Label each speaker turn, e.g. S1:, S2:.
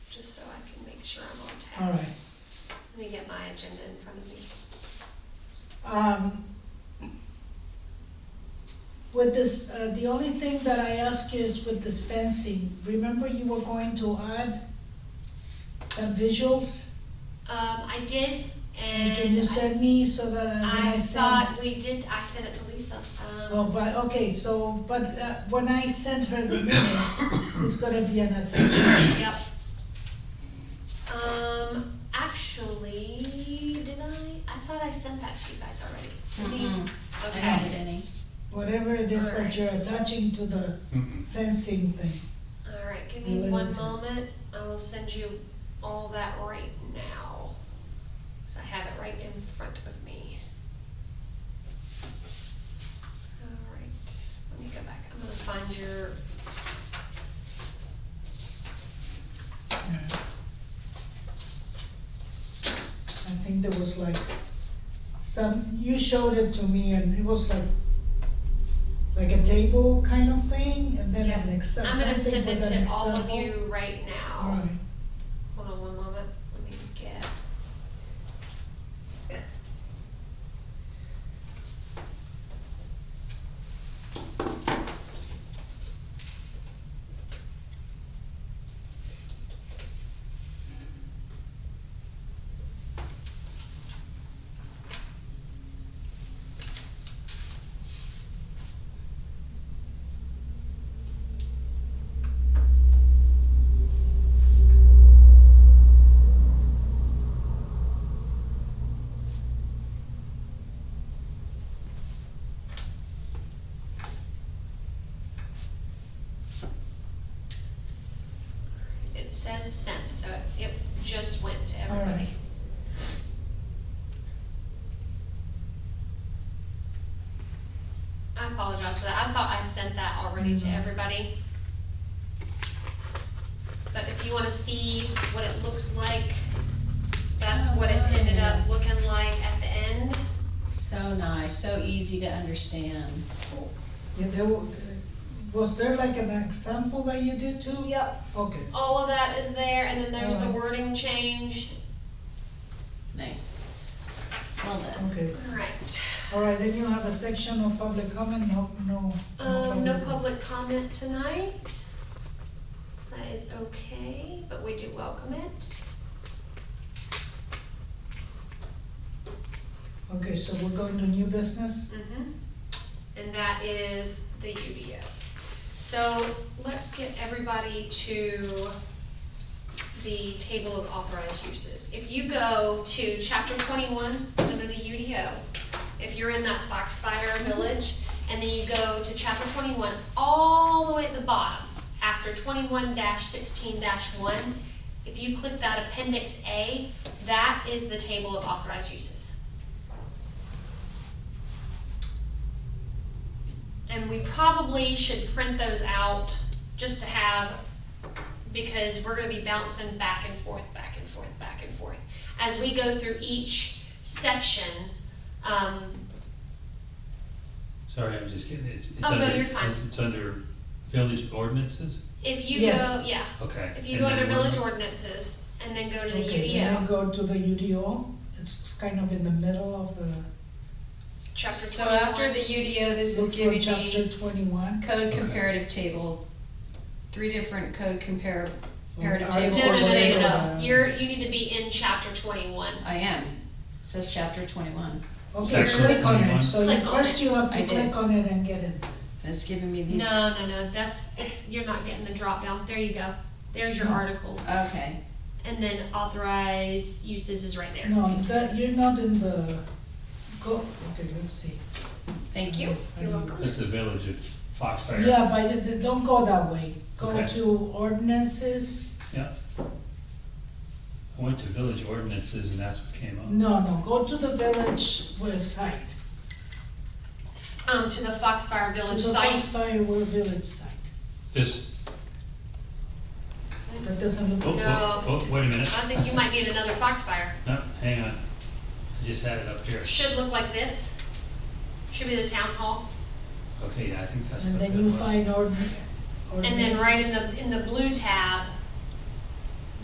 S1: sure I'm on task.
S2: all right.
S1: Let me get my agenda in front of me.
S2: Um, With this, uh, the only thing that I ask you is with this fencing, remember you were going to add some visuals?
S1: Um, I did,
S2: And can you
S1: and
S2: send me so that I- when
S1: I
S2: I
S1: thought
S2: send?
S1: we did, I sent it to Lisa,
S2: Oh,
S1: um,
S2: but, okay, so, but uh, when I send her the minutes, it's gonna be an attachment.
S1: yep. Um, actually, did I? I thought I sent that to you guys already.
S3: Mm-mm, I
S1: Okay,
S3: don't need any.
S2: Whatever it is that
S1: Alright.
S2: you're attaching to the
S4: Mhm.
S2: fencing thing.
S1: alright, give me
S2: Related
S1: one
S2: to-
S1: moment, I will send you all that right now. Cause I have it right in front of me. Alright, let me go back, I'm gonna find your
S2: I think there was like some, you showed it to me and it was like, like a table kind of thing and then an
S1: Yeah.
S2: ex-
S1: I'm gonna
S2: something
S1: send it
S2: with an
S1: to all
S2: example.
S1: of you right now.
S2: Alright,
S1: Hold on one moment, let me get. It says sent, so it it just went to everybody.
S2: Alright.
S1: I apologize for that, I thought I sent that already to
S2: Mhm.
S1: everybody. But if you wanna see what it looks like, that's
S3: Oh,
S1: what it ended up
S3: nice.
S1: looking like at the end.
S3: So nice, so easy to understand.
S2: yeah, there were, was there like an example that you did too?
S1: Yep,
S2: Okay,
S1: all of that is there, and then there's the
S2: Alright.
S1: wording change.
S3: Nice. Well done.
S2: okay,
S1: Alright,
S2: alright, then you have a section of public comment, no, no.
S1: um, no public comment tonight. That is okay, but we do welcome it.
S2: Okay, so we're going to new business?
S1: Mhm. And that is the UDO. So let's get everybody to the table of authorized uses. If you go to chapter twenty-one under the UDO, if you're in that Foxfire Village, and then you go to chapter twenty-one, all the way at the bottom, after twenty-one sixteen one, if you click that appendix A, that is the table of authorized uses. And we probably should print those out just to have, because we're gonna be bouncing back and forth, back and forth, back and forth. As we go through each section, um,
S4: Sorry, I'm just kidding, it's, it's
S1: Oh, no,
S4: under,
S1: you're fine.
S4: it's, it's under village ordinances,
S1: if you
S2: Yes.
S1: go, yeah,
S4: okay.
S1: if you
S4: and
S1: go
S4: then
S1: under
S4: we're-
S1: village ordinances and then go to the E
S2: Okay, then we
S1: UDO,
S2: go to the UDO, it's kind of in the middle of the,
S1: chapter
S3: So after
S1: twenty-one.
S3: the UDO, this is
S2: look for
S3: giving me
S2: chapter twenty-one.
S3: code
S4: Okay.
S3: comparative table, three different code compare, comparative
S2: Or
S3: table
S1: No, no,
S3: or
S1: no, no, no,
S3: statement.
S1: no, you're, you need to be in chapter twenty-one.
S3: I am, says chapter twenty-one,
S2: Okay,
S4: Section
S2: click on it,
S4: 21.
S2: so you,
S1: Click on
S2: first you have
S3: I
S2: to
S3: did.
S2: click on it and get it.
S3: and it's giving me these,
S1: No, no, no, that's, it's, you're not getting the drop down. there you go, there's your
S2: No.
S1: articles.
S3: okay,
S1: And then authorize uses is right there.
S2: No, that, you're not in the, go, okay, let's see.
S3: thank you.
S2: I
S1: You're
S2: don't-
S1: welcome.
S4: That's the village of Foxfire.
S2: Yeah, but it- it- don't go that way, go
S4: Okay.
S2: to ordinances,
S4: I went to village ordinances and that's what came up.
S2: no, no, go to the village website.
S1: Um, to the Foxfire Village
S2: To the
S1: site.
S2: Foxfire Wa- Village site,
S4: This,
S2: that doesn't
S4: oh,
S2: look,
S4: oh, oh, wait a
S1: I
S4: minute,
S1: think you might need another Foxfire.
S4: no, hang on, I just had it up here,
S1: Should look like this. Should be the town hall.
S4: okay, yeah, I think that's
S2: and
S4: what that
S2: then you
S4: was.
S2: find ordin- ordinances.
S1: And then right in the, in the blue tab,